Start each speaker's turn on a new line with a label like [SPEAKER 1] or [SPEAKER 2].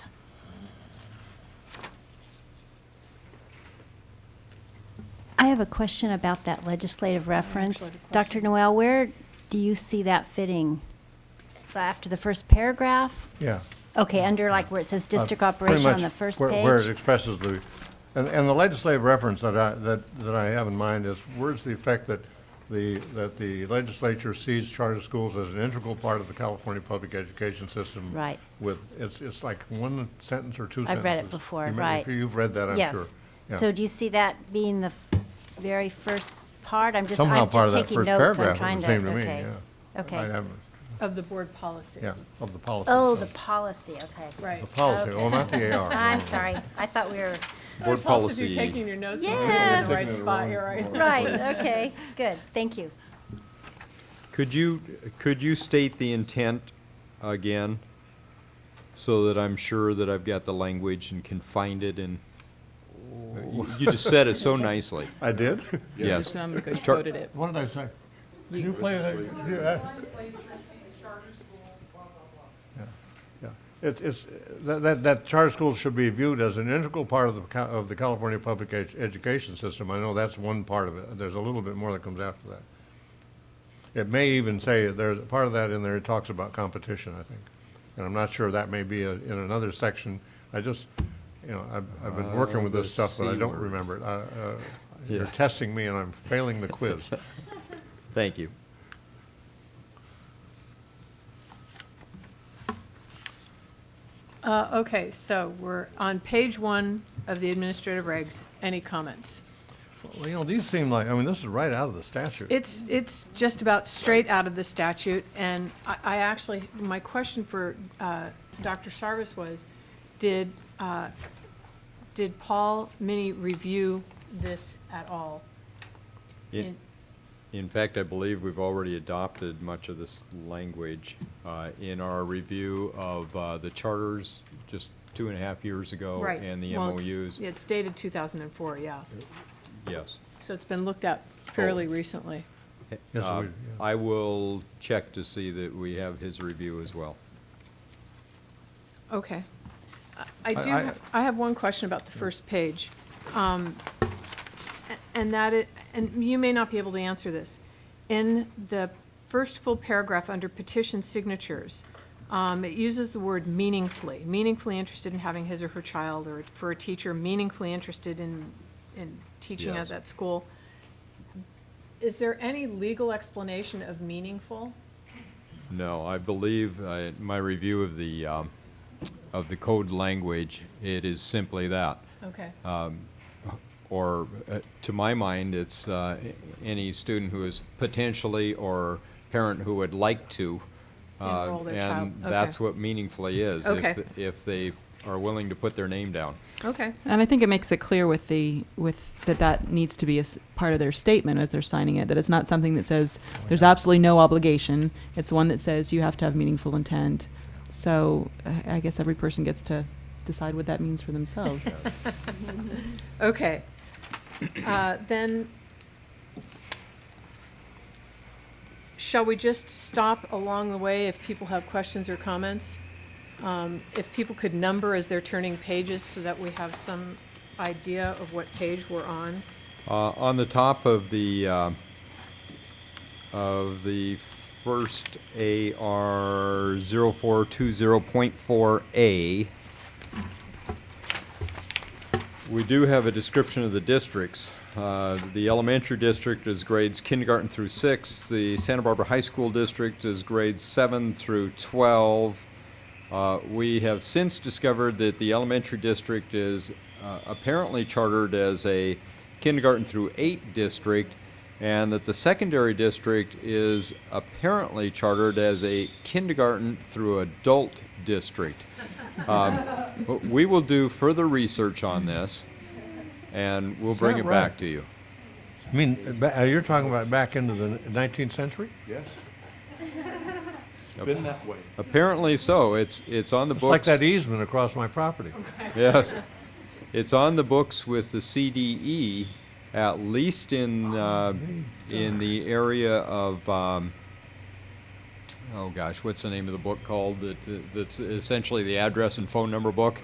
[SPEAKER 1] have a question about that legislative reference.
[SPEAKER 2] shorter question.
[SPEAKER 1] Dr. Noel, where do you see that fitting? After the first paragraph?
[SPEAKER 3] Yeah.
[SPEAKER 1] Okay, under like where it says district
[SPEAKER 3] Uh,
[SPEAKER 1] operation
[SPEAKER 3] pretty
[SPEAKER 1] on the
[SPEAKER 3] much
[SPEAKER 1] first
[SPEAKER 3] where- Where it
[SPEAKER 1] page?
[SPEAKER 3] expresses the, and, and the legislative reference that I, that, that I have in mind is words to the effect that the, that the legislature sees charter schools as an integral part of the California public education system.
[SPEAKER 1] Right.
[SPEAKER 3] With, it's, it's like one sentence or two sentences.
[SPEAKER 1] I've read it before,
[SPEAKER 3] You may-
[SPEAKER 1] right.
[SPEAKER 3] You've read that, I'm sure.
[SPEAKER 1] Yes.
[SPEAKER 3] Yeah.
[SPEAKER 1] So do you see that being the f- very first part? I'm just,
[SPEAKER 3] Somehow
[SPEAKER 1] I'm
[SPEAKER 3] part
[SPEAKER 1] just
[SPEAKER 3] of that
[SPEAKER 1] taking
[SPEAKER 3] first
[SPEAKER 1] notes, I'm
[SPEAKER 3] paragraph
[SPEAKER 1] trying
[SPEAKER 3] would
[SPEAKER 1] to,
[SPEAKER 3] seem to me, yeah.
[SPEAKER 1] okay.
[SPEAKER 3] I
[SPEAKER 1] Okay.
[SPEAKER 3] haven't-
[SPEAKER 2] Of the board policy.
[SPEAKER 3] Yeah, of the policy.
[SPEAKER 1] Oh,
[SPEAKER 3] so-
[SPEAKER 1] the policy, okay.
[SPEAKER 2] Right.
[SPEAKER 3] The policy,
[SPEAKER 1] okay.
[SPEAKER 3] oh, not the AR.
[SPEAKER 1] I'm
[SPEAKER 3] no.
[SPEAKER 1] sorry, I thought we were,
[SPEAKER 2] Board
[SPEAKER 4] Board
[SPEAKER 2] If you're taking
[SPEAKER 4] policy,
[SPEAKER 2] your notes and putting them in
[SPEAKER 1] Yes.
[SPEAKER 2] the right
[SPEAKER 3] Taking it
[SPEAKER 2] spot,
[SPEAKER 3] wrong-
[SPEAKER 2] you're right.
[SPEAKER 1] right, okay, good, thank you.
[SPEAKER 4] could you, could you state the intent again? So that I'm sure that I've got the language and can find it and, you you just said it so nicely,
[SPEAKER 3] I did?
[SPEAKER 4] yes. Char-
[SPEAKER 2] quoted it.
[SPEAKER 3] What did I say? Did you play that? yeah. Yeah. It's, it's, that, that, that charter schools should be viewed as an integral part of the, Ca- of the California public ed- education system. I know that's one part of it. There's a little bit more that comes after that. It may even say, there's, part of that in there, it talks about competition, I think. And I'm not sure that may be a- in another section. I just, you know, I've, I've been working with this
[SPEAKER 4] Uh, the
[SPEAKER 3] stuff, but I
[SPEAKER 4] C
[SPEAKER 3] don't
[SPEAKER 4] word.
[SPEAKER 3] remember it. I- uh, You're
[SPEAKER 4] Yeah.
[SPEAKER 3] testing me and I'm failing the quiz.
[SPEAKER 4] Thank you.
[SPEAKER 2] Uh, okay, so we're on page one of the administrative regs. Any comments?
[SPEAKER 3] Well, you know, these seem like, I mean, this is right out of the statute.
[SPEAKER 2] It's, it's just about straight out of the statute, and I, I actually, my question for, uh, Dr. Sarvis was, did, uh, did Paul Mini review this at all?
[SPEAKER 4] In- In fact, I believe we've already adopted much of this language uh, in our review of uh, the charters just two and a half years ago
[SPEAKER 2] Right.
[SPEAKER 4] oh, and the
[SPEAKER 2] Well, it's-
[SPEAKER 4] MOUs.
[SPEAKER 2] It's dated two thousand and four, yeah,
[SPEAKER 4] Yes.
[SPEAKER 2] so it's been looked at fairly recently.
[SPEAKER 3] Yes,
[SPEAKER 4] Uh,
[SPEAKER 3] we- yeah.
[SPEAKER 4] I will check to see that we have his review as well.
[SPEAKER 2] Okay. I- I do,
[SPEAKER 3] I-
[SPEAKER 2] have- I have one question about the first page. Um, a- And that, it- and you may not be able to answer this. In the first full paragraph under petition signatures, um, it uses the word meaningfully, meaningfully interested in having his or her child, or for a teacher, meaningfully interested in, in teaching at
[SPEAKER 4] Yes.
[SPEAKER 2] that school. Is there any legal explanation of meaningful?
[SPEAKER 4] No, I believe uh, my review of the, um, of the code language, it is simply that.
[SPEAKER 2] Okay.
[SPEAKER 4] or uh, to my mind, it's uh, a- any student who is potentially or parent who would like to. uh,
[SPEAKER 2] Enroll their child.
[SPEAKER 4] And
[SPEAKER 2] Okay.
[SPEAKER 4] that's what meaningfully is. if
[SPEAKER 2] Okay.
[SPEAKER 4] th- If they are willing to put their name down.
[SPEAKER 2] Okay.
[SPEAKER 5] And I think it makes it clear with the with that that needs to be a s- part of their statement as they're signing it. That it's not something that says there's absolutely no obligation. It's one that says you have to have meaningful intent. So uh, I- I guess every person gets to decide what that means for themselves.
[SPEAKER 2] Okay. Uh, Then, shall we just stop along the way if people have questions or comments? Um, If people could number as they're turning pages so that we have some idea of what page we're on?
[SPEAKER 4] Uh, On the top of the, uh, of the first AR 0420.4A, we do have a description of the districts. Uh, The elementary district is grades kindergarten through six. The Santa Barbara High School district is grades seven through 12. Uh, We have since discovered that the elementary district is uh, apparently chartered as a kindergarten through eight district, and that the secondary district is apparently chartered as a kindergarten through adult district. Um, w- We will do further research on this, and we'll bring
[SPEAKER 3] that
[SPEAKER 4] it back
[SPEAKER 3] right?
[SPEAKER 4] to you.
[SPEAKER 3] I mean, ba- uh, you're talking about back into the nineteenth century?
[SPEAKER 6] Yes. It's been that way.
[SPEAKER 4] Apparently so. It's, it's on the
[SPEAKER 3] It's like
[SPEAKER 4] books.
[SPEAKER 3] that easement across my property.
[SPEAKER 4] Yes. It's on the books with the CDE, at least in, uh, in the area of, um, oh gosh, what's the name of the book called? that- That's essentially the address and phone number book.